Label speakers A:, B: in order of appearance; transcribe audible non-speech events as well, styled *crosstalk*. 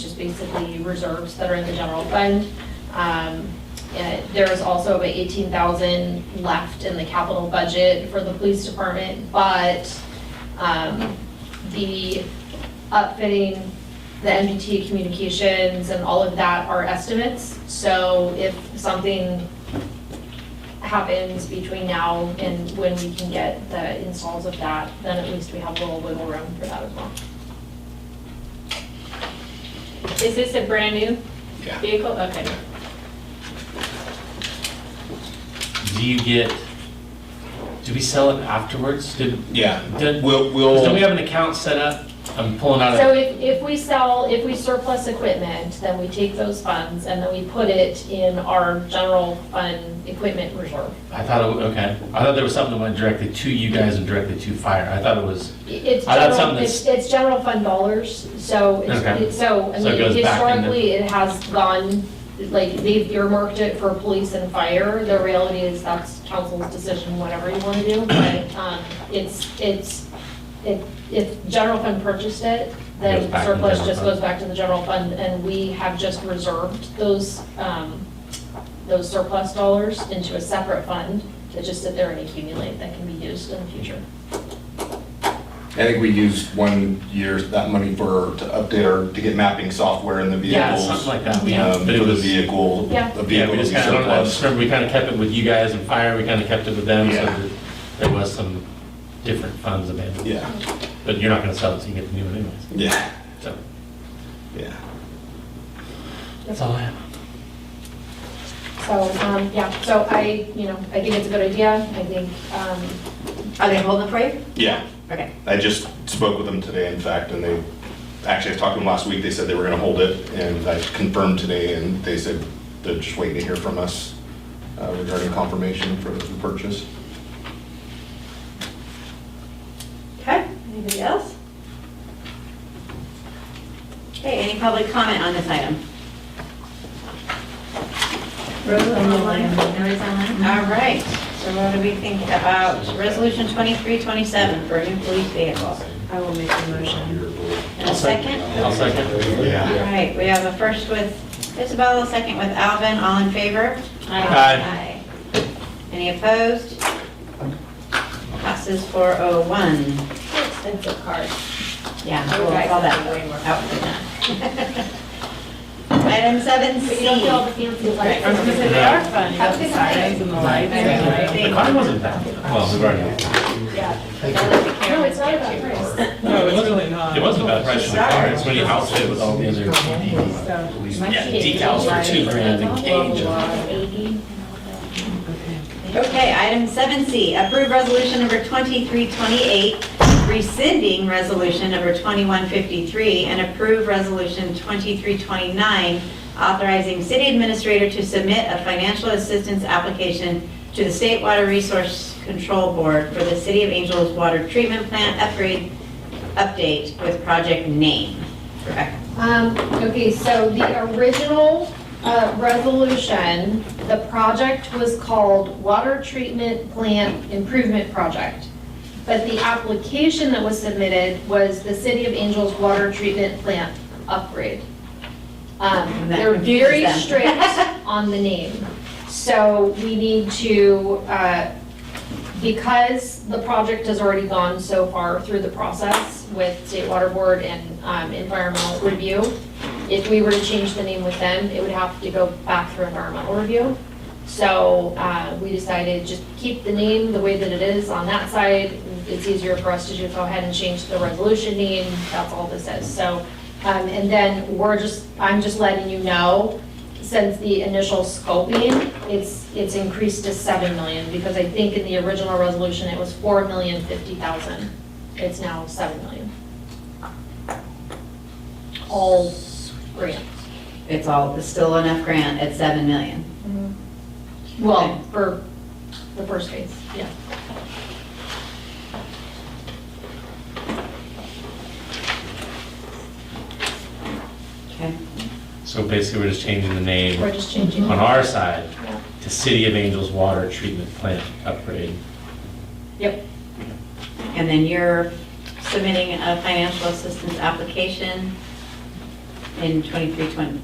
A: basically reserves that are in the general fund. Um, eh, There is also about 18,000 left in the capital budget for the police department, but um, the upfitting, the MDT communications and all of that are estimates. So if something happens between now and when we can get the installs of that, then at least we have a little wiggle room for that as well.
B: Is this a brand new
C: Yeah.
B: vehicle? Okay.
D: Do you get, do we sell it afterwards? Did,
C: Yeah,
D: Did-
C: we'll, we'll.
D: don't we have an account set up? I'm pulling out
A: So
D: of,
A: if, if we sell, if we surplus equipment, then we take those funds and then we put it in our general fund equipment reserve.
D: I thought, it wa- okay, I thought there was something that went directly to you guys and directly to fire. I thought it was,
A: It's
D: I thought
A: general,
D: something
A: it's, it's general fund dollars, so, it's-
D: Okay.
A: it's- so, I
D: So
A: mean,
D: it goes back in the-
A: historically, it has gone, like, they've earmarked it for police and fire. The reality is that's council's decision, whatever you want to do, but, um, it's, it's, if, if general fund purchased it,
D: Goes
A: then
D: back to the
A: surplus
D: general
A: just
D: fund.
A: goes back to the general fund, and we have just reserved those, um, those surplus dollars into a separate fund that just sit there and accumulate that can be used in the future.
C: I think we used one year, that money for, to update our, to get mapping software in the
D: yeah,
C: vehicles.
D: something like that. We have-
C: um,
D: but it
C: For the
D: was-
C: vehicle,
A: Yeah.
C: the vehicle
D: Yeah, we
C: that we
D: just kind of, I don't know, I just
C: surplus.
D: remember we kind of kept it with you guys and fire, we kind of kept it with them, so
C: Yeah.
D: that there was some different funds available.
C: Yeah,
D: But you're not gonna sell it, so you get the new one anyways,
C: yeah,
D: so.
C: yeah.
D: That's all I have.
A: So, um, yeah, so I, you know, I think it's a good idea, I think, um,
E: Are they holding the parade?
C: Yeah,
E: Okay.
C: I just spoke with them today, in fact, and they, actually, I talked to them last week, they said they were gonna hold it, and I confirmed today, and they said they're just waiting to hear from us uh, regarding confirmation for the purchase.
E: Okay, anybody else? Okay, any public comment on this item? Rose online? All right, so what do we think about Resolution 2327 for a new police vehicle?
F: I will make a motion.
E: And a second?
D: I'll second.
C: Yeah.
E: All right, we have a first with Isabel, a second with Alvin, all in favor?
D: Aye.
E: Aye. Any opposed? Passes 401.
A: expensive card.
E: Yeah, we'll call that way more *laughs* Item seven C. Oh,
A: the fancy
B: Right, I was gonna say they are fun. You got the sirens and the lights and like-
D: The car wasn't bad. Well, we've already,
A: No, it's not about price.
G: No, it's really not.
D: it wasn't a bad price for the car, it's when you outfit with all the other Yeah, decals for two grand and cage.
E: Okay, item seven C, approve resolution number twenty-three twenty-eight, rescinding resolution number twenty-one fifty-three, and approve resolution twenty-three twenty-nine, authorizing city administrator to submit a financial assistance application to the State Water Resource Control Board for the City of Angels Water Treatment Plant upgrade update with project name. Correct.
A: Um, okay, so the original, uh, resolution, the project was called Water Treatment Plant Improvement Project. But the application that was submitted was the City of Angels Water Treatment Plant Upgrade. Um,
E: That
A: they're
E: confuses
A: very
E: them.
A: strict
E: *laughs*
A: on the name. So we need to, uh, because the project has already gone so far through the process with State Water Board and um, Environmental Review, if we were to change the name with them, it would have to go back through Environmental Review. So uh, we decided just keep the name the way that it is on that side. It's easier for us to just go ahead and change the resolution name. That's all this is. So, um, and then we're just, I'm just letting you know, since the initial scoping, it's, it's increased to 7 million, because I think in the original resolution, it was 4 million 50,000. It's now 7 million. All grants.
E: It's all, it's still enough grant at seven million.
A: Well, for the first phase, yeah.
E: Okay.
D: so basically we're just changing the name
A: We're just changing.
D: on our side
A: Yeah.
D: to City of Angels Water Treatment Plant Upgrade.
A: Yep,
E: And then you're submitting a financial assistance application in 2320.